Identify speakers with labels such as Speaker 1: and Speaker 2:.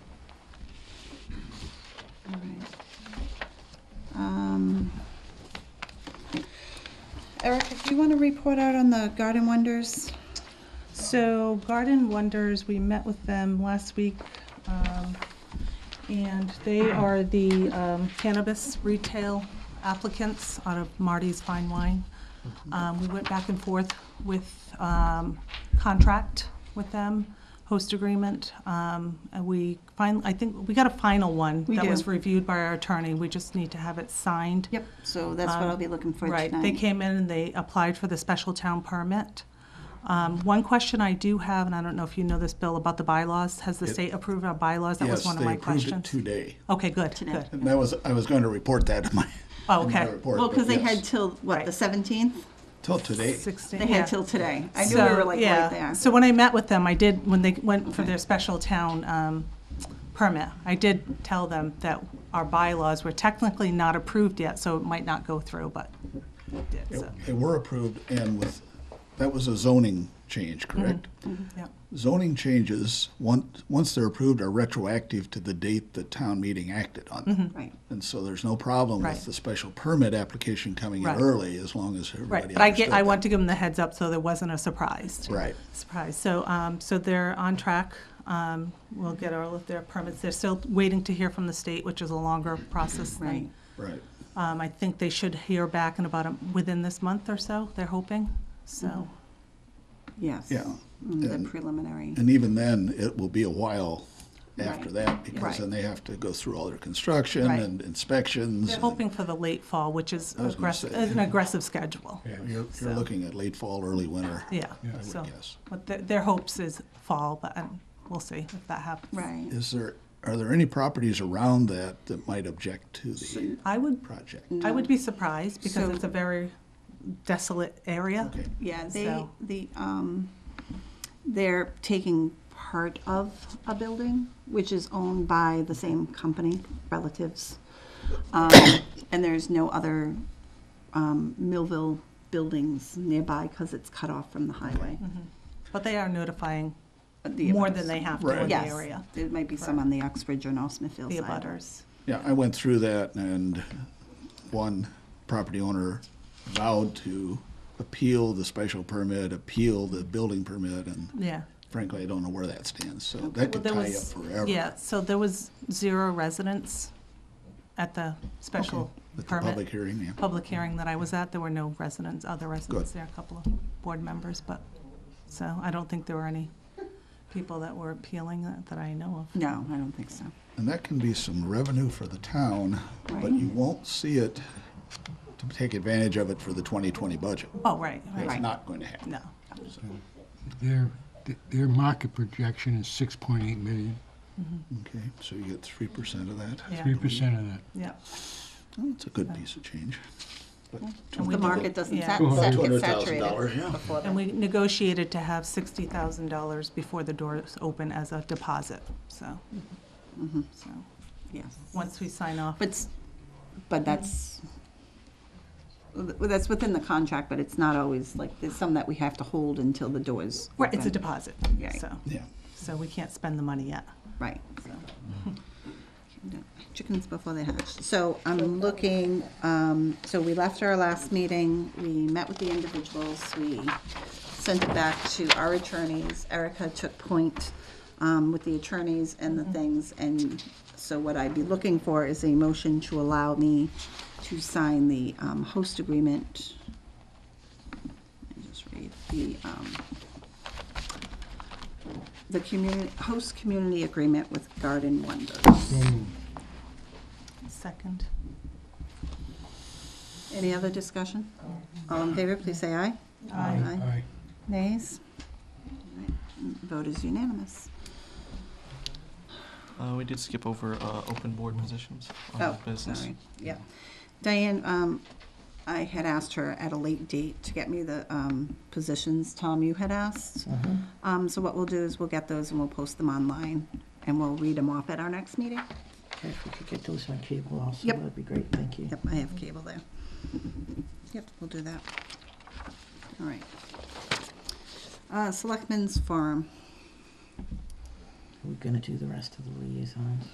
Speaker 1: Um, Eric, if you want to report out on the Garden Wonders,
Speaker 2: So Garden Wonders, we met with them last week, um, and they are the um, cannabis retail applicants out of Marty's Fine Wine. Um, We went back and forth with um, contract with them, host agreement. Um, And we fin, I think, we got a final one.
Speaker 1: We
Speaker 2: That was
Speaker 1: do.
Speaker 2: reviewed by our attorney. We just need to have it signed.
Speaker 1: Yep. so that's what I'll be looking for tonight.
Speaker 2: Um, Right, they came in and they applied for the special town permit. Um, One question I do have, and I don't know if you know this, Bill, about the bylaws, has the state approved our bylaws? That was
Speaker 3: Yes,
Speaker 2: one of
Speaker 3: they
Speaker 2: my
Speaker 3: approved it
Speaker 2: questions.
Speaker 3: today.
Speaker 2: Okay, good,
Speaker 1: Today.
Speaker 2: good.
Speaker 3: And that was, I was going to report that in my,
Speaker 2: Oh,
Speaker 3: in my
Speaker 2: okay.
Speaker 3: report.
Speaker 1: Well,
Speaker 3: but
Speaker 1: because they
Speaker 3: yes,
Speaker 1: had till, what,
Speaker 2: Right.
Speaker 1: the 17th?
Speaker 3: Till today.
Speaker 2: Sixteen-
Speaker 1: They
Speaker 2: yeah.
Speaker 1: had till today. I knew we were
Speaker 2: So,
Speaker 1: like
Speaker 2: yeah.
Speaker 1: right there.
Speaker 2: So when I met with them, I did, when they went for
Speaker 1: Okay.
Speaker 2: their special town um, permit, I did tell them that our bylaws were technically not approved yet, so it might not go through, but it did, so,
Speaker 3: They were approved and with, that was a zoning change,
Speaker 2: Mm-hmm.
Speaker 3: correct?
Speaker 2: yeah.
Speaker 3: Zoning changes, once, once they're approved, are retroactive to the date the town meeting acted on them.
Speaker 1: Right.
Speaker 3: And so there's no problem
Speaker 2: Mm-hmm. Right.
Speaker 3: with the special permit application coming in
Speaker 2: Right.
Speaker 3: early, as long as
Speaker 2: Right,
Speaker 3: everybody
Speaker 2: but I get,
Speaker 3: understood
Speaker 2: I
Speaker 3: that.
Speaker 2: want to give them the heads up so there wasn't a surprise.
Speaker 3: Right.
Speaker 2: Surprise. So, um, so they're on track. Um, we'll get all of their permits. They're still waiting to hear from the state, which is a longer process
Speaker 1: Right.
Speaker 2: than.
Speaker 3: Right.
Speaker 2: Um, I think they should hear back in about, a- within this month or so, they're hoping, so.
Speaker 1: Mm-hmm. Yes.
Speaker 3: Yeah.
Speaker 1: Mm, The
Speaker 3: And-
Speaker 1: preliminary.
Speaker 3: And even then, it will be a while after
Speaker 1: Right.
Speaker 3: that, because
Speaker 2: Right.
Speaker 3: then they have to go through all their construction
Speaker 2: Right.
Speaker 3: and inspections.
Speaker 2: They're
Speaker 3: and-
Speaker 2: hoping for the late fall, which is
Speaker 3: I was gonna
Speaker 2: aggressive,
Speaker 3: say.
Speaker 2: an aggressive schedule.
Speaker 3: You're, you're
Speaker 2: So-
Speaker 3: looking at late fall, early winter.
Speaker 2: Yeah,
Speaker 3: I would
Speaker 2: so,
Speaker 3: guess.
Speaker 2: but their, their hopes is fall, but um, we'll see if that happens.
Speaker 1: Right.
Speaker 3: Is there, are there any properties around that that might object to the
Speaker 2: I would,
Speaker 3: project?
Speaker 2: I would be surprised because
Speaker 1: So-
Speaker 2: it's a very desolate area.
Speaker 3: Okay,
Speaker 1: Yeah, they,
Speaker 2: So-
Speaker 1: the, um, they're taking part of a building, which is owned by the same company, relatives. Um, and there's no other, um, Millville buildings nearby because it's cut off from the highway.
Speaker 2: Mm-hmm. But they are notifying
Speaker 1: The
Speaker 2: more
Speaker 1: abutters.
Speaker 2: than they have to in the
Speaker 3: Right.
Speaker 2: area,
Speaker 1: Yes, there might be some on the Oxbridge or North Smithfield
Speaker 2: the
Speaker 1: side.
Speaker 2: abutters.
Speaker 3: yeah, I went through that and one property owner vowed to appeal the special permit, appeal the building permit, and
Speaker 2: Yeah.
Speaker 3: frankly, I don't know where that stands, so that
Speaker 2: Well,
Speaker 3: could
Speaker 2: there
Speaker 3: tie up
Speaker 2: was-
Speaker 3: forever.
Speaker 2: Yeah, so there was zero residents at the special
Speaker 3: At the public
Speaker 2: permit,
Speaker 3: hearing, yeah.
Speaker 2: public hearing that I was at, there were no residents, other residents there, a couple of board members, but, so I don't think there were any people that were appealing that, that I know of.
Speaker 1: No, I don't think so.
Speaker 3: And that can be some revenue for the town, but
Speaker 1: Right.
Speaker 3: you won't see it to take advantage of it for the 2020 budget.
Speaker 2: Oh, right,
Speaker 3: It's
Speaker 2: right,
Speaker 3: not going to happen.
Speaker 2: no,
Speaker 4: Their, their market projection is six point eight million,
Speaker 3: Okay, so you get 3% of that.
Speaker 2: Yeah.
Speaker 4: three percent of that.
Speaker 2: yeah.
Speaker 3: Well, it's a good piece of change. But
Speaker 2: And we
Speaker 1: The
Speaker 2: did-
Speaker 1: market doesn't
Speaker 2: yeah.
Speaker 1: sat, sat, get
Speaker 5: $200,000,
Speaker 1: saturated
Speaker 5: yeah.
Speaker 1: before
Speaker 2: And
Speaker 1: then.
Speaker 2: we negotiated to have sixty thousand dollars before the doors open as a deposit, so, so,
Speaker 1: Yes.
Speaker 2: once we sign off.
Speaker 1: But, s- but that's, well, that's within the contract, but it's not always, like, there's some that we have to hold until the doors.
Speaker 2: Right, it's a
Speaker 1: open.
Speaker 2: deposit,
Speaker 1: Yeah.
Speaker 2: so,
Speaker 3: Yeah,
Speaker 2: so we can't spend the money yet.
Speaker 1: Right, so. Chickens before they hatch. So I'm looking, um, so we left our last meeting, we met with the individuals, we sent it back to our attorneys. Erica took point, um, with the attorneys and the things, and so what I'd be looking for is a motion to allow me to sign the, um, host agreement. Let me just read the, um, the community, host community agreement with Garden Wonders.
Speaker 4: So moved.
Speaker 2: Second.
Speaker 1: Any other discussion? All in favor, please say aye. Aye.
Speaker 4: Aye.
Speaker 1: Nays? All right, Vote is unanimous.
Speaker 5: Uh, we did skip over uh, open board positions on
Speaker 1: Oh,
Speaker 5: business.
Speaker 1: sorry, yeah. Diane, um, I had asked her at a late date to get me the, um, positions, Tom, you had asked. Um, so what we'll do is we'll get those and we'll post them online, and we'll read them off at our next meeting.
Speaker 6: Okay, If we could get those on cable also,
Speaker 1: Yep.
Speaker 6: that'd be great, thank you.
Speaker 1: Yep, I have cable there. Yep, we'll do that. All right. Uh, Selectmen's Forum.
Speaker 6: We're gonna do the rest of the liaisons.